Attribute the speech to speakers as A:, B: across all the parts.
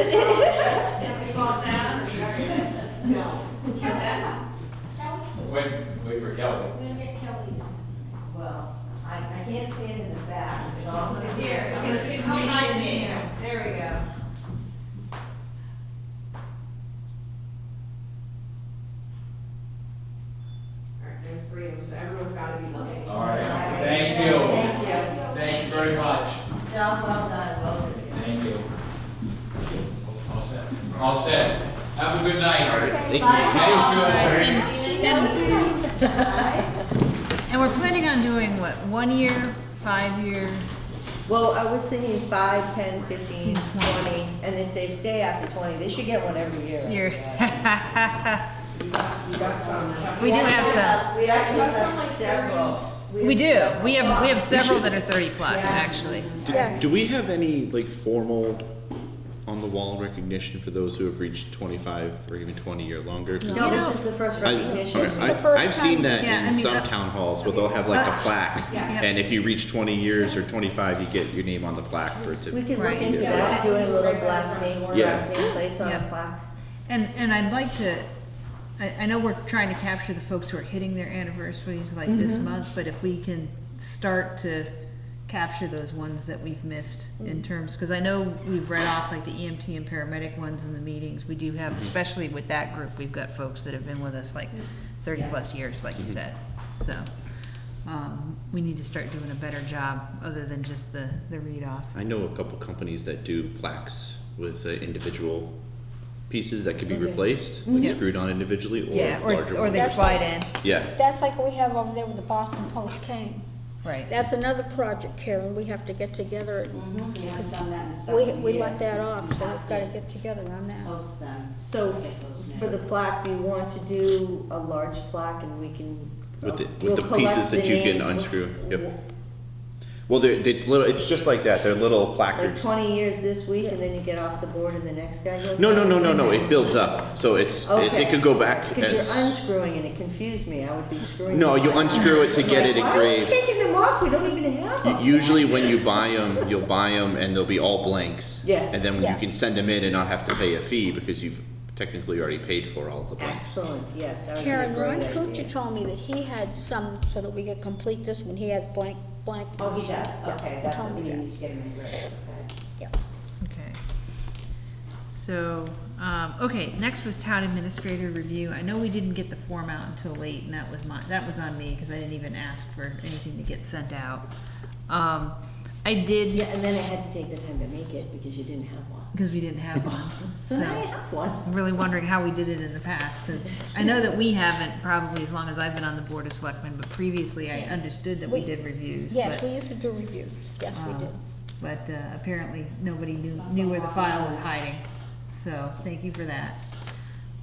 A: Is Paul down? Is
B: No.
A: that?
C: Wait, wait for Kelly.
D: We're gonna get Kelly.
B: Well, I, I can't stand in the back, so I'm gonna-
A: Here, okay, so you can find me. There we go.
E: All right, there's three of them, so everyone's gotta be looking.
C: All right, thank you.
B: Thank you.
C: Thank you very much.
B: Job well done, both of you.
C: Thank you. All set. All set. Have a good night. Thank you.
A: And we're planning on doing what, one year, five year?
B: Well, I was thinking five, ten, fifteen, twenty, and if they stay after twenty, they should get one every year.
A: Year.
E: You got, you got some.
A: We do have some.
B: We actually
E: That's
B: have
E: not like
B: several.
A: We do.
B: have
A: We have, we have
B: several.
A: several that are thirty plus,
B: Yes.
A: actually.
D: Yeah.
F: Do we have any like formal on the wall recognition for those who have reached 25 or even 20 or longer? 'Cause
B: No, this is the first
F: I,
B: recognition.
D: This is the
F: I,
D: first
F: I've seen
D: time.
F: that
A: Yeah,
F: in
A: I mean,
F: some
A: that-
F: town halls where they'll have like a plaque,
E: Yes.
F: and if you reach 20 years or 25, you get your name on the plaque for it to.
B: We could look
A: Right.
B: into
F: Yeah.
B: that, doing little last name,
F: Yeah.
B: last name plates on a
A: Yep.
B: plaque.
A: And, and I'd like to, I, I know we're trying to capture the folks who are hitting their anniversaries like this
F: Mm-hmm.
A: month, but if we can start to capture those ones that we've missed in
F: Mm.
A: terms, because I know we've read off like the EMT and paramedic ones in the meetings, we do
F: Mm-hmm.
A: have, especially with that group, we've got folks that have been with us
F: Mm.
A: like thirty plus years, like you
F: Mm-hmm.
A: said, so. Um, we need to start doing a better job, other than just the, the read off.
F: I know a couple companies that do plaques with uh, individual pieces that could be replaced, like
A: Yeah.
F: screwed on individually, or
A: Yeah, or,
F: larger
A: or
F: ones.
A: they
D: That's
A: slide in,
F: Yeah.
D: That's like what we have over there with the Boston Post cane.
A: right.
D: That's another project, Karen, we have to get together. and
G: We haven't done that in several
D: We,
G: years.
D: we let that off, so we've
G: have
D: gotta get together on that.
G: Post them.
B: So for the plaque, do you want to do a large plaque and we can?
F: With the- with
B: we'll
F: the
B: collect
F: pieces that
B: the
F: you can
B: names.
F: unscrew, yep. Well, they're, it's little. It's just like that. They're little
B: Like
F: placards.
B: twenty years this week and then you get off the board and the next guy goes?
F: No, no,
B: on?
F: no, no, no. It builds up, so it's, it's it
B: Okay.
F: could go back
B: Cause you're
F: as.
B: unscrewing and it confused me, I would be screwing.
F: No,
B: them
F: you
B: all up.
F: unscrew it to get it
B: Like, Why are we
F: engraved.
B: taking them off, we don't even have
F: U-
B: them.
F: Usually, when you buy them, you'll buy them and they'll be all blanks.
B: Yes.
F: And then you
D: Yeah.
F: can send them in and not have to pay a fee because you've technically already paid for all the blanks.
B: Excellent, yes, that would be a
D: Karen, Ron
B: great idea.
D: Kuchar told me that he had some, so that we could complete this one, he has blank, blank.
G: Oh, he does,
D: Yeah,
G: okay,
D: he
G: that's
D: told
G: what we
D: me that.
G: need to get him in grade, okay.
D: Yeah.
A: Okay. So, um, okay, next was town administrator review. I know we didn't get the form out until late, and that was my, that was on me, because I didn't even ask for anything to get sent out. Um, I
B: Yeah,
A: did,
B: and then I had to take the time to make it because you didn't have one.
A: because we didn't have one,
B: So
A: so.
B: now I have one.
A: I'm really wondering how we did it in the past, because I know that we haven't, probably as long as I've been on the board of selectmen, but previously I understood that we
D: We-
A: did reviews,
D: Yes,
A: but-
D: we used to do reviews, yes, we
A: Um,
D: did.
A: But uh, apparently, nobody knew, knew where the file was hiding, so thank you for that.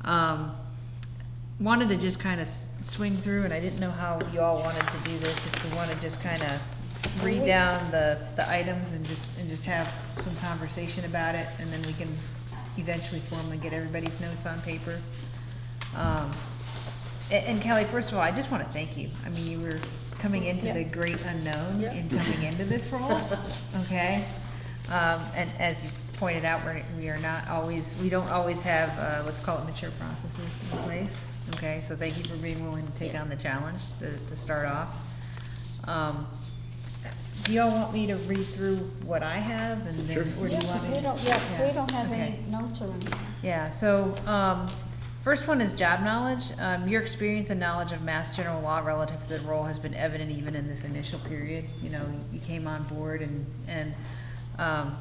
A: Um, Wanted to just kind of swing through, and I didn't know how you all wanted to do this, if we want to just kind of
D: Mm-hmm.
A: read down the, the items and just, and just have some conversation about it, and then we can eventually formally get everybody's notes on paper. Um, a- And Kelly, first of all, I just want to thank you. I mean, you were coming into the great unknown
D: Yeah.
A: in coming into this role, okay? Um, and as you pointed out, we're, we are not always, we don't always have, uh, let's call it mature processes in place, okay? So thank you for being willing to take on the challenge to, to start off. Um, do y'all want me to read through what I have and then, or do
D: Yeah,
A: you want
D: 'cause
A: me?
D: we don't, yeah, 'cause we don't have
A: okay.
D: any notes or anything.
A: Yeah, so, um, first one is job knowledge. Um, your experience and knowledge of mass general law relative to the role has been evident even in this initial period. You know, you came on board and, and, um,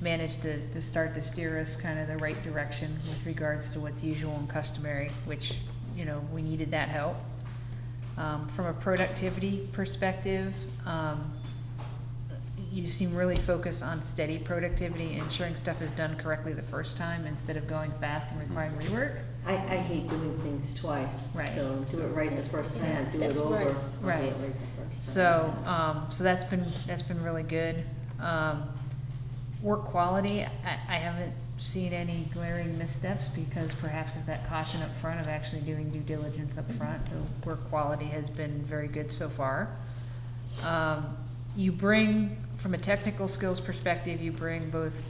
A: managed to, to start to steer us kind of the right direction with regards to what's usual and customary, which, you know, we needed that help. Um, from a productivity perspective, um, you seem really focused on steady productivity, ensuring stuff is done correctly the first time instead of going fast and requiring rework.
B: I, I hate doing things twice,
A: Right.
B: so do it right the first time, or do it
D: That's
B: over.
D: right.
B: or do it
A: Right.
B: the first
A: So,
B: time.
A: um, so that's been, that's been really good. Um, work quality, I, I haven't seen any glaring missteps because perhaps of that caution up front of actually doing due diligence up front, the work quality has been very good so far. Um, you bring, from a technical skills perspective, you bring both